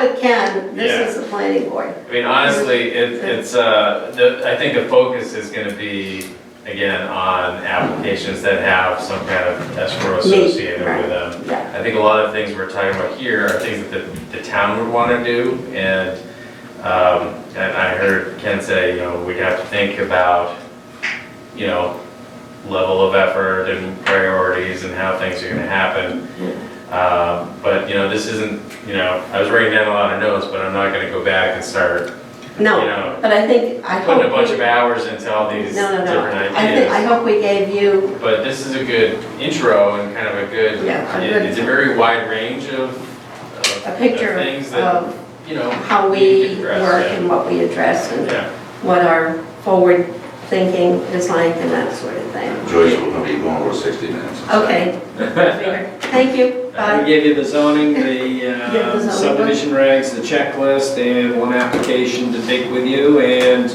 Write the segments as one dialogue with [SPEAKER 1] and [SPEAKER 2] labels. [SPEAKER 1] it can, this is the planning board.
[SPEAKER 2] I mean, honestly, it, it's, uh, the, I think the focus is gonna be, again, on applications that have some kind of escrow associated
[SPEAKER 1] right.
[SPEAKER 2] with them.
[SPEAKER 1] Yeah.
[SPEAKER 2] I think a lot of things we're talking about here are things that the, the town would wanna do, and, um, and I heard Ken say, you know, we'd have to think about, you know, level of effort and priorities and how things are gonna happen. Um, But, you know, this isn't, you know, I was writing down a lot of notes, but I'm not gonna go back and start
[SPEAKER 1] No,
[SPEAKER 2] Yeah.
[SPEAKER 1] but I think, I hope.
[SPEAKER 2] putting a bunch
[SPEAKER 1] we-
[SPEAKER 2] of hours into all these
[SPEAKER 1] No, no, no.
[SPEAKER 2] different
[SPEAKER 1] I think, I
[SPEAKER 2] ideas.
[SPEAKER 1] hope we gave you,
[SPEAKER 2] But this is a good intro and kind of a good,
[SPEAKER 1] Yeah, a
[SPEAKER 2] it-
[SPEAKER 1] good-
[SPEAKER 2] it's a very wide range of. of-
[SPEAKER 1] a picture
[SPEAKER 2] of Things that,
[SPEAKER 1] of
[SPEAKER 2] you know.
[SPEAKER 1] how
[SPEAKER 2] need to
[SPEAKER 1] we
[SPEAKER 2] be addressed,
[SPEAKER 1] work
[SPEAKER 2] yeah.
[SPEAKER 1] and what we address and
[SPEAKER 2] Yeah,
[SPEAKER 1] what our forward thinking is like and that sort of thing.
[SPEAKER 3] Joyce will not be going over 60 minutes.
[SPEAKER 1] Okay. Thank you,
[SPEAKER 4] Uh, We
[SPEAKER 1] bye.
[SPEAKER 4] gave you the zoning, the
[SPEAKER 1] Yeah, the
[SPEAKER 4] uh,
[SPEAKER 1] zoning.
[SPEAKER 4] subdivision regs, the checklist, and one application to take with you, and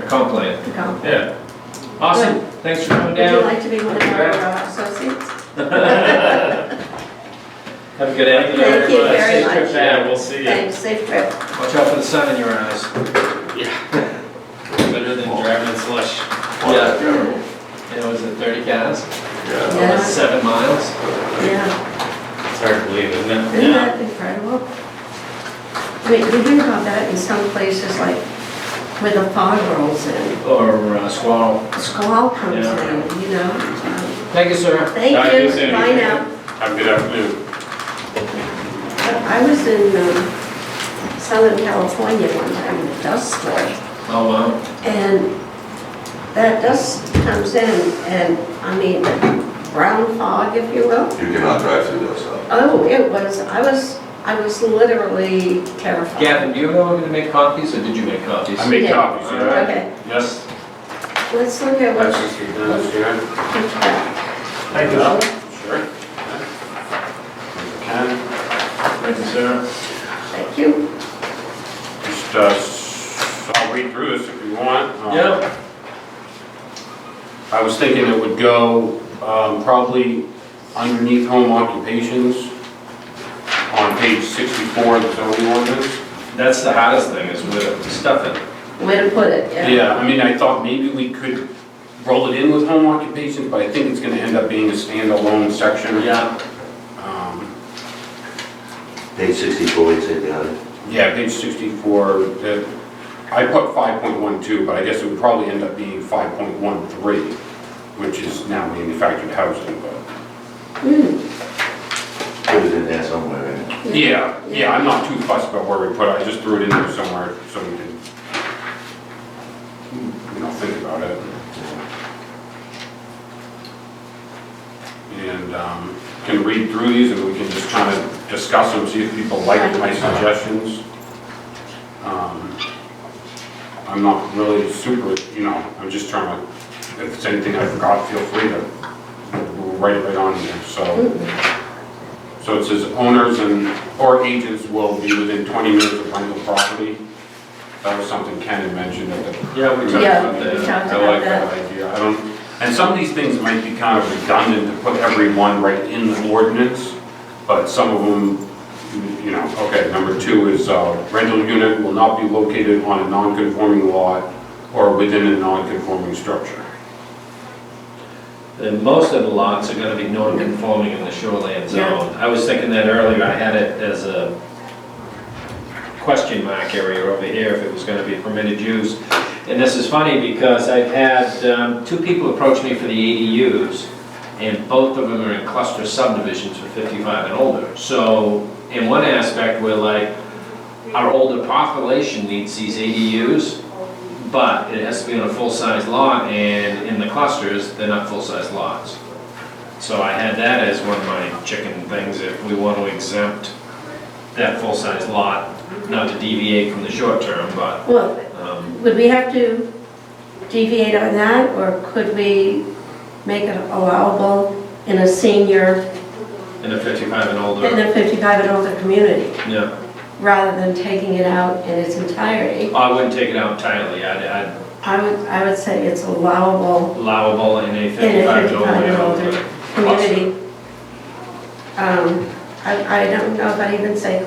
[SPEAKER 4] a comp plan.
[SPEAKER 2] yeah.
[SPEAKER 4] Awesome, thanks for coming
[SPEAKER 1] Would you
[SPEAKER 4] down.
[SPEAKER 1] like to be one of our uh, associates?
[SPEAKER 4] Have a good afternoon.
[SPEAKER 1] Thank you
[SPEAKER 4] everybody.
[SPEAKER 1] very
[SPEAKER 4] Safe
[SPEAKER 1] much.
[SPEAKER 4] trip
[SPEAKER 2] Yeah,
[SPEAKER 4] back.
[SPEAKER 2] we'll see you.
[SPEAKER 1] Thanks, safe trip.
[SPEAKER 4] Watch out for the sun in your eyes.
[SPEAKER 2] Better than driving in slush.
[SPEAKER 4] Yeah. It was at 30 cows,
[SPEAKER 3] Yeah.
[SPEAKER 1] Yeah.
[SPEAKER 4] seven miles.
[SPEAKER 1] Yeah,
[SPEAKER 2] It's hard to believe, isn't it?
[SPEAKER 1] isn't that incredible? I mean, you hear about that in some places, like where the fog rolls in,
[SPEAKER 4] Or uh, squirrel.
[SPEAKER 1] squall comes
[SPEAKER 4] Yeah.
[SPEAKER 1] in, you know?
[SPEAKER 4] Thank you, sir.
[SPEAKER 1] Thank
[SPEAKER 2] Bye,
[SPEAKER 1] you,
[SPEAKER 2] you too.
[SPEAKER 1] bye now.
[SPEAKER 2] Have a good afternoon.
[SPEAKER 1] I was in um, Southern California one time, in a dust storm.
[SPEAKER 4] Oh, wow.
[SPEAKER 1] And that dust comes in and, I mean, brown fog, if you will.
[SPEAKER 3] You cannot drive through those, so.
[SPEAKER 1] Oh, it was, I was, I was literally terrified.
[SPEAKER 4] Gavin, do you know I'm gonna make copies, or did you make copies?
[SPEAKER 1] made Yeah.
[SPEAKER 2] copies,
[SPEAKER 4] yeah.
[SPEAKER 1] Okay,
[SPEAKER 2] Yes.
[SPEAKER 1] let's look at what
[SPEAKER 2] what she does, yeah.
[SPEAKER 1] you got.
[SPEAKER 2] Thank you. Sure. Ken,
[SPEAKER 4] Thank you, sir.
[SPEAKER 1] Thank you.
[SPEAKER 2] just, uh, I'll read through this if you want.
[SPEAKER 4] Yeah,
[SPEAKER 5] Um, I was thinking it would go um, probably underneath home occupations on page 64 of the zoning ordinance.
[SPEAKER 4] that's the hottest thing, is with it, stuff it.
[SPEAKER 1] Way to put it, yeah.
[SPEAKER 5] Yeah, I mean, I thought maybe we could roll it in with home occupations, but I think it's gonna end up being a standalone section.
[SPEAKER 4] Yeah.
[SPEAKER 5] Um,
[SPEAKER 3] Page 64, you said, yeah.
[SPEAKER 5] Yeah, page 64, that- I put 5.12, but I guess it would probably end up being 5.13, which is now manufactured housing, but.
[SPEAKER 1] Hmm,
[SPEAKER 3] Put it in there somewhere, right?
[SPEAKER 5] Yeah, yeah, I'm not too fussed about where we put it, I just threw it in there somewhere, so we can, you know, think about it. And, um, can read through these and we can just kind of discuss them, see if people like my suggestions. Um, I'm not really super, you know, I'm just trying to, if it's anything I forgot, feel free to we'll write it right on here, so. So it says owners and, or agents will be within 20 minutes of rental property. That was something Ken had mentioned at the.
[SPEAKER 4] Yeah, we talked
[SPEAKER 1] Yeah,
[SPEAKER 4] about
[SPEAKER 1] we
[SPEAKER 4] that.
[SPEAKER 1] talked
[SPEAKER 5] I like
[SPEAKER 1] about that.
[SPEAKER 5] that idea, I don't, and some of these things might be kind of redundant to put everyone right in the ordinance, but some of them, you know, okay, number two is uh, rental unit will not be located on a non-conforming lot or within a non-conforming structure.
[SPEAKER 4] And most of the lots are gonna be non-conforming in the shoreland zone. I was thinking that earlier, I had it as a question mark area over here, if it was gonna be permitted use. And this is funny, because I've had, um, two people approach me for the ADUs, and both of them are in cluster subdivisions for fifty-five and older. So, in one aspect, we're like, our older population needs these ADUs, but it has to be on a full-size lot, and in the clusters, they're not full-size lots. So I had that as one of my chicken things, if we want to exempt that full-size lot, not to deviate from the short term, but,
[SPEAKER 1] Well,
[SPEAKER 4] um,
[SPEAKER 1] would we have to deviate on that, or could we make it allowable in a senior,
[SPEAKER 4] in a fifty-five and
[SPEAKER 1] in
[SPEAKER 4] older,
[SPEAKER 1] a 55 and older community,
[SPEAKER 4] yeah.
[SPEAKER 1] rather than taking it out in its entirety?
[SPEAKER 4] I wouldn't take it out entirely, I'd, I'd
[SPEAKER 1] I would, I would say it's allowable
[SPEAKER 4] allowable in a
[SPEAKER 1] in a
[SPEAKER 4] fifty-five and
[SPEAKER 1] 55 and
[SPEAKER 4] older.
[SPEAKER 1] older community. Um, I, I don't know if I'd even say